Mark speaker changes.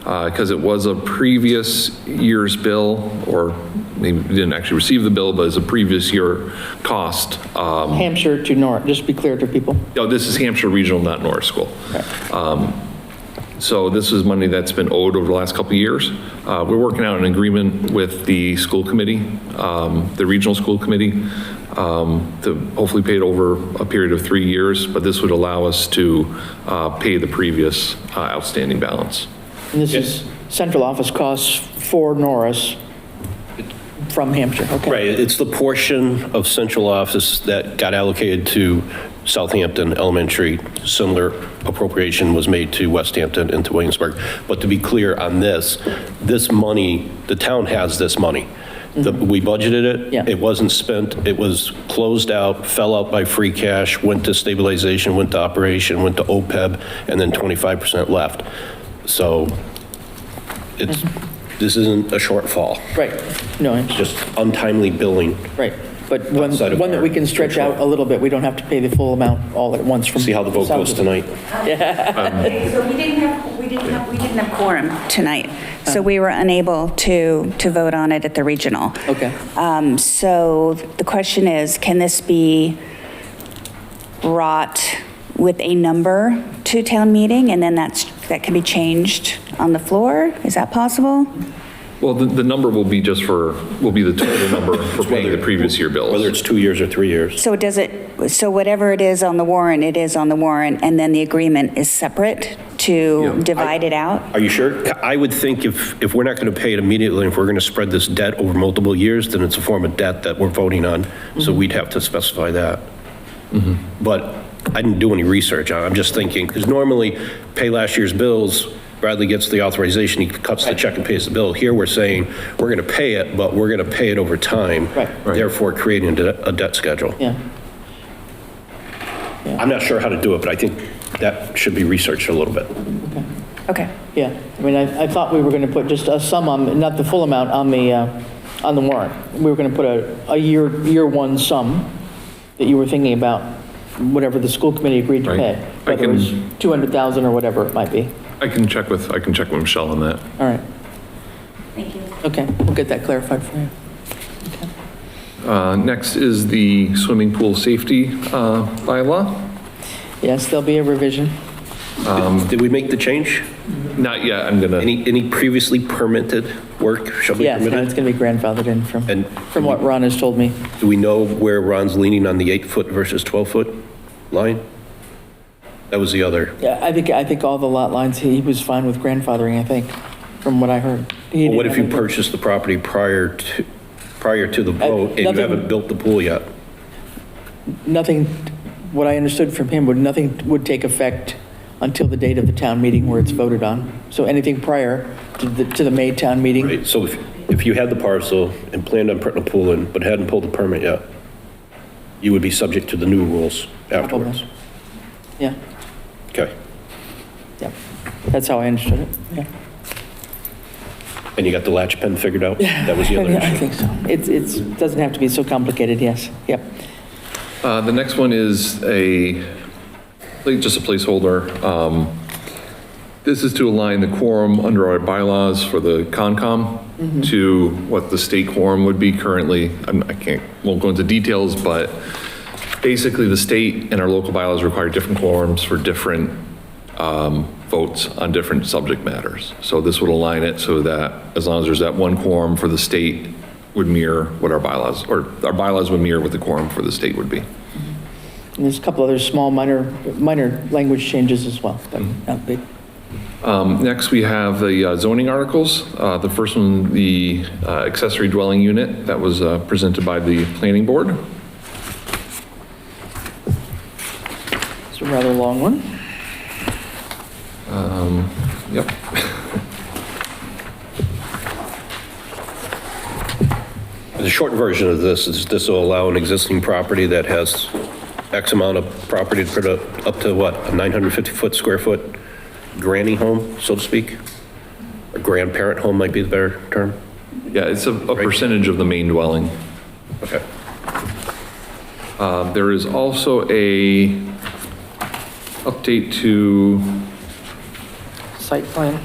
Speaker 1: because Uh, it was a previous year's bill, or maybe we didn't actually receive the bill, but it's a previous year cost. Um,
Speaker 2: Hampshire to Norris, just to be clear to people.
Speaker 1: No, this is Hampshire Regional, not Norris School. Um, So this is money that's been owed over the last couple of years. Uh, We're working out an agreement with the school committee, um, the regional school committee, um, to hopefully pay it over a period of three years, but this would allow us to uh, pay the previous uh, outstanding balance.
Speaker 2: And this is central office costs for Norris from Hampshire, okay.
Speaker 3: Right, it's the portion of central office that got allocated to Southampton Elementary. Similar appropriation was made to West Hampton and to Williamsburg. But to be clear on this, this money, the town has this money. The- We budgeted it.
Speaker 2: Yeah.
Speaker 3: It wasn't spent, it was closed out, fell out by free cash, went to stabilization, went to operation, went to OPEB, and then 25% left. So it's, this isn't a shortfall,
Speaker 2: Right, no, I understand.
Speaker 3: just untimely billing.
Speaker 2: right. But one,
Speaker 3: Outside of
Speaker 2: one that we can
Speaker 3: our
Speaker 2: stretch out a little bit, we don't have to pay the full amount all at once from.
Speaker 3: See how the vote goes tonight.
Speaker 4: Uh, So we didn't have, we didn't have, we didn't have quorum tonight, so we were unable to, to vote on it at the regional.
Speaker 2: Okay.
Speaker 4: Um, So the question is, can this be brought with a number to town meeting, and then that's, that can be changed on the floor? Is that possible?
Speaker 1: Well, the, the number will be just for, will be the total number for paying the previous year bills.
Speaker 3: Whether it's two years or three years.
Speaker 4: So does it, so whatever it is on the warrant, it is on the warrant, and then the agreement is separate to divide it out?
Speaker 3: Are you sure? I would think if, if we're not going to pay it immediately, if we're going to spread this debt over multiple years, then it's a form of debt that we're voting on.
Speaker 2: Mm-hmm.
Speaker 3: So we'd have to specify that.
Speaker 1: Mm-hmm.
Speaker 3: But I didn't do any research on it. I'm just thinking, because normally, pay last year's bills, Bradley gets the authorization, he cuts the check and pays the bill. Here, we're saying, we're going to pay it, but we're going to pay it over time.
Speaker 2: Right.
Speaker 1: Right.
Speaker 3: Therefore, creating a de- a debt schedule.
Speaker 2: Yeah,
Speaker 3: I'm not sure how to do it, but I think that should be researched a little bit.
Speaker 4: Okay.
Speaker 2: yeah. I mean, I, I thought we were going to put just a sum on, not the full amount, on the, uh, on the warrant. We were going to put a, a year, year one sum that you were thinking about, whatever the school committee agreed to
Speaker 1: Right.
Speaker 2: pay,
Speaker 1: I
Speaker 2: whether it was
Speaker 1: can-
Speaker 2: 200,000 or whatever it might be.
Speaker 1: I can check with, I can check with Michelle on that.
Speaker 2: All right,
Speaker 4: Thank you.
Speaker 2: okay, we'll get that clarified for you.
Speaker 1: Uh, Next is the swimming pool safety uh, bylaw.
Speaker 2: Yes, there'll be a revision.
Speaker 3: Did we make the change?
Speaker 1: Not yet, I'm gonna.
Speaker 3: Any, any previously permitted work shall be
Speaker 2: Yeah, no, it's
Speaker 3: permitted?
Speaker 2: going to be grandfathered in from,
Speaker 3: And-
Speaker 2: from what Ron has told me.
Speaker 3: Do we know where Ron's leaning on the eight-foot versus 12-foot line? That was the other.
Speaker 2: Yeah, I think, I think all the lot lines, he was fine with grandfathering, I think, from what I heard. He
Speaker 3: Well, What if
Speaker 2: didn't
Speaker 3: you
Speaker 2: have any-
Speaker 3: purchased the property prior to, prior to the vote and you
Speaker 2: nothing-
Speaker 3: haven't built the pool yet?
Speaker 2: Nothing, what I understood from him, would nothing would take effect until the date of the town meeting where it's voted on. So anything prior to the, to the May town meeting,
Speaker 3: Right, so if, if you had the parcel and planned on putting a pool in, but hadn't pulled the permit yet, you would be subject to the new rules afterwards.
Speaker 2: yeah,
Speaker 3: Okay,
Speaker 2: yeah. That's how I understood it, yeah.
Speaker 3: and you got the latch pen figured out? That was the other
Speaker 2: Yeah, I
Speaker 3: issue.
Speaker 2: think so. It's, it's, doesn't have to be so complicated, yes, yep.
Speaker 1: Uh, The next one is a, like, just a placeholder. Um, This is to align the quorum under our bylaws for the Concom to what the state quorum would be currently. I'm- I can't, won't go into details, but basically the state and our local bylaws require different quorums for different um, votes on different subject matters. So this would align it so that as long as there's that one quorum for the state would mirror what our bylaws, or our bylaws would mirror what the quorum for the state would be.
Speaker 2: And there's a couple other small minor, minor language changes as well, but not big.
Speaker 1: Um, Next, we have the uh, zoning articles. Uh, The first one, the uh, accessory dwelling unit, that was uh, presented by the planning board.
Speaker 2: It's a rather long one.
Speaker 1: Yep.
Speaker 3: The short version of this is this will allow an existing property that has X amount of property to put up, up to what, a 950-foot square foot granny home, so to speak? A grandparent home might be the better term?
Speaker 1: Yeah, it's a a percentage of the main dwelling.
Speaker 3: Okay.
Speaker 1: Uh, There is also a update to
Speaker 2: Site plan.